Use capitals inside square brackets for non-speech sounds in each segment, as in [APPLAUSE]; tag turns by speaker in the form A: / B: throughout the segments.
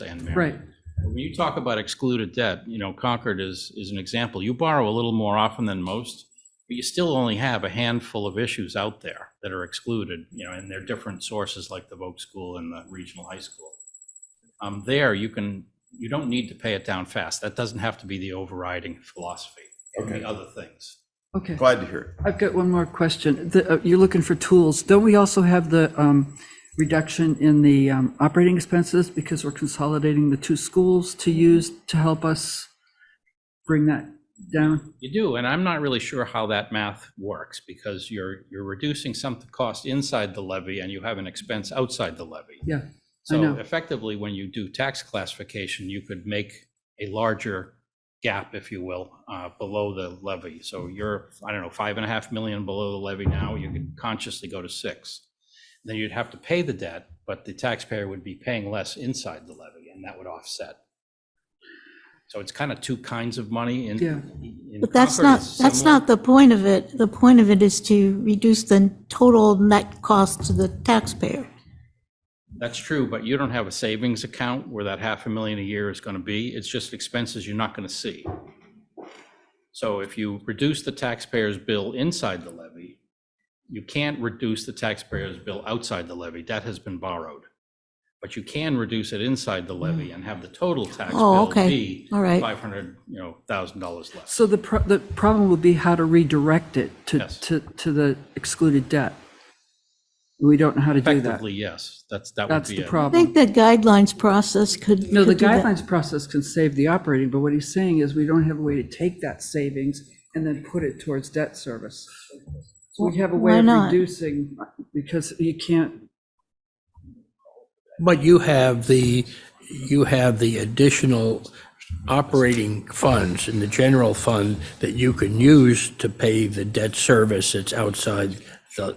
A: San Marin.
B: Right.
A: When you talk about excluded debt, you know, Concord is, is an example. You borrow a little more often than most, but you still only have a handful of issues out there that are excluded, you know, and they're different sources like the Voc School and the regional high school. Um, there, you can, you don't need to pay it down fast. That doesn't have to be the overriding philosophy. It can be
C: Okay.
A: other things.
B: Okay,
C: Glad to hear it.
B: I've got one more question. The, uh, You're looking for tools. Don't we also have the um, reduction in the um, operating expenses because we're consolidating the two schools to use to help us bring that down?
A: You do, and I'm not really sure how that math works because you're, you're reducing some cost inside the levy and you have an expense outside the levy.
B: Yeah,
A: So
B: know.
A: effectively, when you do tax classification, you could make a larger gap, if you will, uh, below the levy. So you're, I don't know, five and a half million below the levy now, you could consciously go to six. Then you'd have to pay the debt, but the taxpayer would be paying less inside the levy and that would offset. So it's kind of two kinds of money in.
B: Yeah.
A: in
D: But that's
A: Concord,
D: not,
A: it's
D: that's
A: similar.
D: not the point of it. The point of it is to reduce the total net cost to the taxpayer.
A: That's true, but you don't have a savings account where that half a million a year is going to be. It's just expenses you're not going to see. So if you reduce the taxpayer's bill inside the levy, you can't reduce the taxpayer's bill outside the levy. Debt has been borrowed. But you can reduce it inside the levy and have the total tax
D: Mm. Oh,
A: bill
D: okay.
A: be
D: All right.
A: 500, you know, thousand dollars less.
B: So the, pro- the problem will be how to redirect it to,
A: Yes.
B: to, to the excluded debt. We don't know how to do that.
A: Effectively, yes, that's, that would
B: That's
A: be it.
B: the
D: I
B: problem.
D: think the guidelines process could.
B: No, the
D: could do that.
B: guidelines process can save the operating, but what he's saying is we don't have a way to take that savings and then put it towards debt service. So we have a way
D: Why
B: of
D: not?
B: reducing, because you can't,
E: But you have the, you have the additional operating funds in the general fund that you can use to pay the debt service that's outside the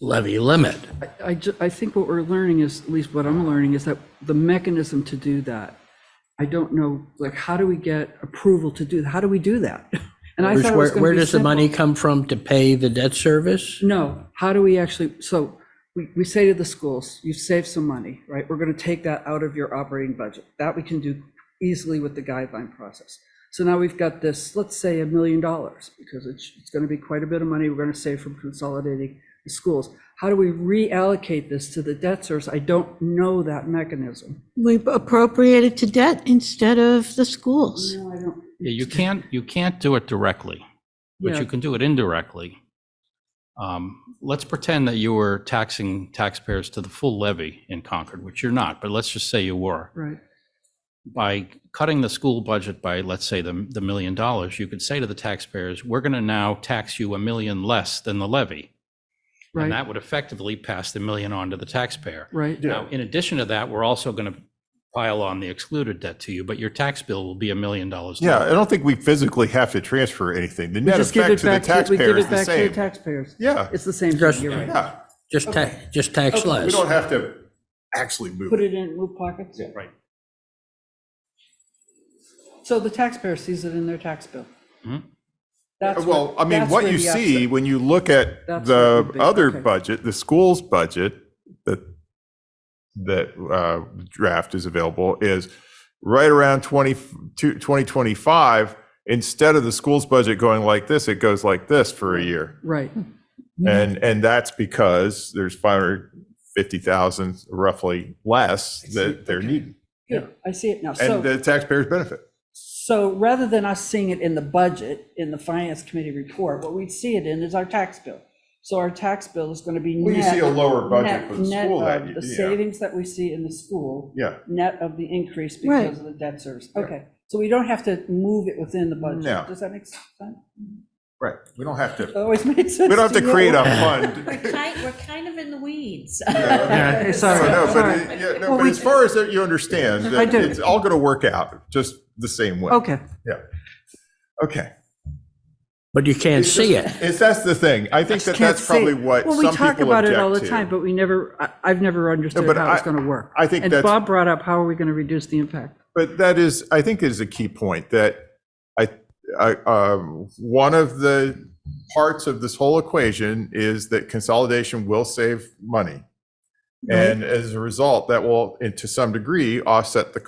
E: levy limit.
B: I, ju- I think what we're learning is, at least what I'm learning, is that the mechanism to do that, I don't know, like, how do we get approval to do, how do we do that? [LAUGHS] And I thought it was
E: Where,
B: gonna
E: where
B: be
E: does the
B: simple.
E: money come from to pay the debt service?
B: No, how do we actually, so we, we say to the schools, you've saved some money, right? We're gonna take that out of your operating budget. That we can do easily with the guideline process. So now we've got this, let's say a million dollars, because it's, it's gonna be quite a bit of money we're gonna save from consolidating the schools. How do we reallocate this to the debt service? I don't know that mechanism.
D: We appropriate it to debt instead of the schools.
B: No, I don't.
A: Yeah, you can't, you can't do it directly, but
B: Yeah.
A: you can do it indirectly. Um, Let's pretend that you were taxing taxpayers to the full levy in Concord, which you're not, but let's just say you were.
B: Right,
A: By cutting the school budget by, let's say, the, the million dollars, you could say to the taxpayers, we're going to now tax you a million less than the levy. And
B: right,
A: that would effectively pass the million on to the taxpayer.
B: right.
A: Now, in addition to that, we're also going to pile on the excluded debt to you, but your tax bill will be a million dollars.
C: Yeah,
A: lower.
C: I don't think we physically have to transfer anything. The net
B: Just give
C: effect
B: it
C: to the
B: back to, we
C: taxpayer
B: give
C: is
B: it
C: the
B: back to the
C: same.
B: taxpayers.
C: Yeah,
B: It's the same
E: Just-
B: thing, you're right.
C: yeah.
E: Just ta, just tax
C: We
E: less.
C: don't have to actually move.
B: Put
C: it.
B: it in, move pockets.
A: Right.
B: So the taxpayer sees it in their tax bill.
A: Mhm.
B: That's
C: Uh, Well,
B: where-
C: I mean,
B: that's
C: what
B: where
C: you
B: the
C: see
B: upset-
C: when you look
B: That's
C: at
B: what it
C: the
B: would be,
C: other
B: okay.
C: budget, the school's budget, that, that uh, draft is available, is right around 20, to 2025, instead of the school's budget going like this, it goes like this for a year.
B: Right,
C: And, and that's because there's 550,000 roughly less that they're needing.
B: yeah, I see it now.
C: And
B: So,
C: the taxpayers benefit.
B: so rather than us seeing it in the budget, in the finance committee report, what we'd see it in is our tax bill. So our tax bill is going to be
C: Well, you see a
B: net,
C: lower budget
B: net,
C: for the
B: net
C: school that
B: of
C: year.
B: the savings that we see in the school,
C: Yeah,
B: net of the increase
D: Right.
B: because of the debt service. Okay, so we don't have to move it within the budget.
C: No.
B: Does that make sense? That
C: right. We don't have to,
B: always made sense.
C: we don't have to
B: you?
C: create a
F: We're
C: fund. [LAUGHS]
F: kind, we're kind of in the weeds.
B: [LAUGHS] Yeah,
C: No,
B: Sorry,
C: no, but,
B: sorry.
C: it- yeah,
B: Well,
C: no, but
B: we-
C: as far as that you understand,
B: I
C: that
B: do.
C: it's all going to work out just the same way.
B: Okay.
C: Okay.
E: But you can't see it.
C: It's, that's the thing. I think that
B: Can't
C: that's
B: say-
C: probably what some
B: Well,
C: people
B: we
C: object to.
B: talk about it all the time, but we never, I, I've never understood
C: but
B: how it's
C: I-
B: going to work.
C: I think
B: And
C: that's-
B: Bob brought up, how are we going to reduce the impact?
C: But that is, I think is a key point that I, I, um, one of the parts of this whole equation is that consolidation will save money. And as a result, that will, and to some degree, offset the